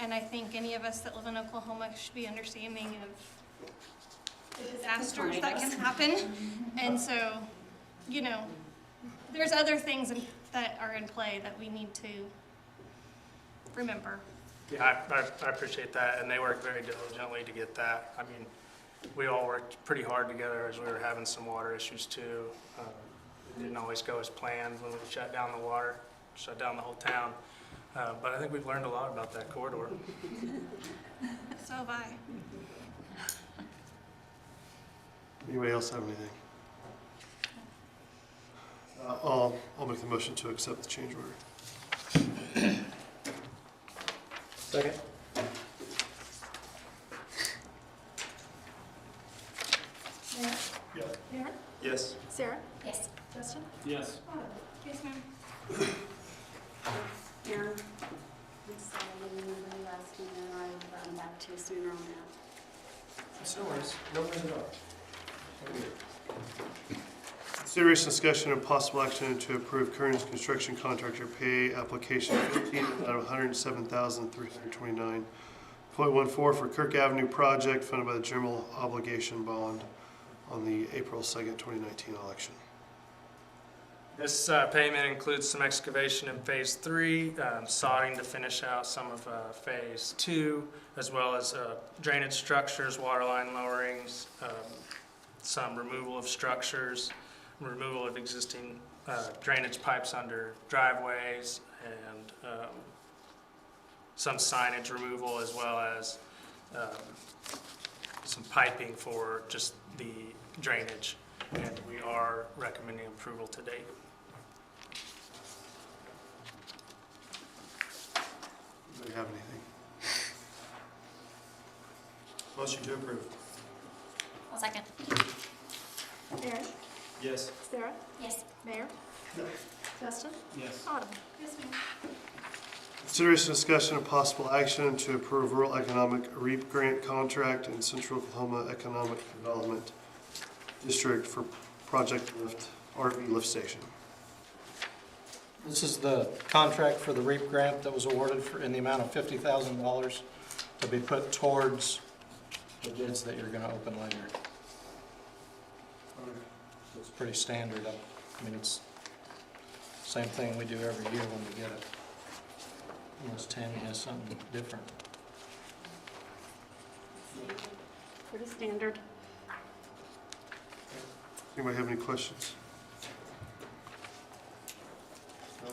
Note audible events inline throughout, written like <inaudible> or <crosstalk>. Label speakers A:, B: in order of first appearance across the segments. A: And I think any of us that live in Oklahoma should be understanding of the disasters that can happen. And so, you know, there's other things in- that are in play that we need to remember.
B: Yeah, I, I- I appreciate that, and they worked very diligently to get that. I mean, we all worked pretty hard together as we were having some water issues too. Uh, It didn't always go as planned when we shut down the water, shut down the whole town. Uh, But I think we've learned a lot about that corridor.
A: So have I.
C: Anybody else have anything? Uh, I'll, I'll make the motion to accept the change order.
D: Second?
C: Yes.
E: Sarah? Yes. Justin?
D: Yes.
A: Yes, ma'am.
E: Aaron? We saw the number last year, and I'll run back to you sooner on that.
C: No worries, no worries at all. Serious discussion and possible action to approve Kearns Construction Contractor Pay Application fifteen out of one hundred and seven thousand three hundred twenty-nine point one four for Kirk Avenue Project funded by the General Obligation Bond on the April second, twenty nineteen election.
B: This uh, payment includes some excavation in Phase Three, um, sodding to finish out some of uh, Phase Two, as well as uh, drainage structures, water line lowerings, um, some removal of structures, removal of existing uh, drainage pipes under driveways, and um, some signage removal, as well as um, some piping for just the drainage. And we are recommending approval to date.
C: Anybody have anything? Motion to approve.
E: I'll second. Aaron?
D: Yes.
E: Sarah? Yes. Mayor? Justin?
D: Yes.
E: Autumn?
C: Consideration, discussion, and possible action to approve rural economic REAP grant contract in Central Oklahoma Economic Development District for Project Lift, RV lift station.
D: This is the contract for the REAP grant that was awarded for, in the amount of fifty thousand dollars to be put towards the bids that you're gonna open later. It's pretty standard, I mean, it's same thing we do every year when we get it. Unless Tammy has something different.
E: Pretty standard.
C: Anybody have any questions? No? All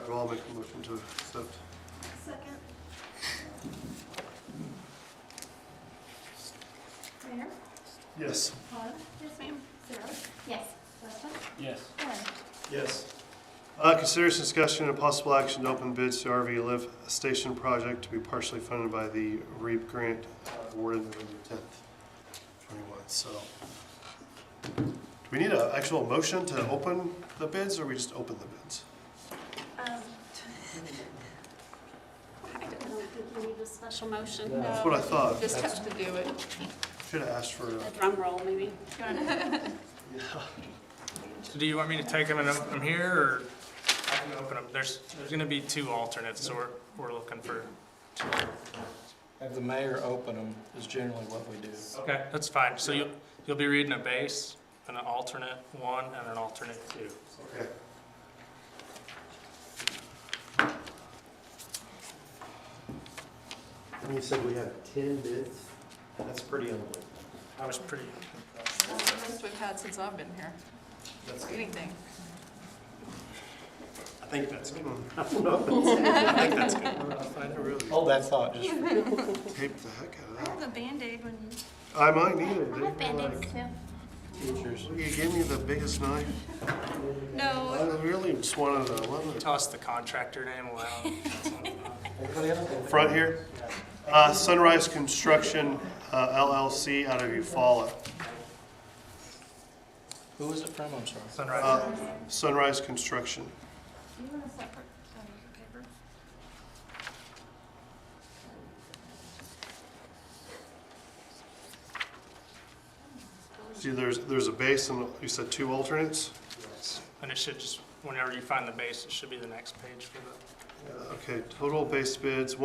C: right, well, I'll make a motion to accept.
E: Second. Mayor?
C: Yes.
E: Autumn? Yes, ma'am. Sarah? Yes. Justin?
D: Yes.
E: Aaron?
D: Yes.
C: Uh, consideration, discussion, and possible action to open bids to RV lift station project to be partially funded by the REAP grant uh, awarded November tenth, twenty-one, so. Do we need an actual motion to open the bids, or we just open the bids?
E: Um, I don't think we need a special motion.
D: No.
C: That's what I thought.
F: Just have to do it.
C: Should have asked for, uh,
E: A drum roll, maybe.
A: <laughs>
B: So do you want me to take them and open them here, or I can open them? There's, there's gonna be two alternates, so we're, we're looking for two.
D: Have the mayor open them is generally what we do.
B: Okay, that's fine. So you'll, you'll be reading a base, and an alternate one, and an alternate two.
C: okay.
G: And you said we have ten bids? That's pretty unbelievable.
B: I was pretty,
F: That's the most we've had since I've been here. Anything.
G: I think that's good.
C: I really
D: Hold that thought just for
C: taped the heck
A: I
C: out of
A: have a Band-Aid when you.
C: that. I might need it. dude. Like,
A: too.
D: futures.
C: You gave me the biggest knife. I
A: No,
C: really just wanted a leather.
B: toss the contractor name aloud.
D: Anybody else?
C: front here. Uh, Sunrise Construction uh, LLC out of Eufaula.
D: Who is it from? I'm sorry.
B: Sunrise.
C: Uh, Sunrise Construction.
A: do you want a separate, um, paper?
C: See, there's, there's a base and you said two alternates?
B: And it should just, whenever you find the base, it should be the next page for the.
C: Okay, total base bids,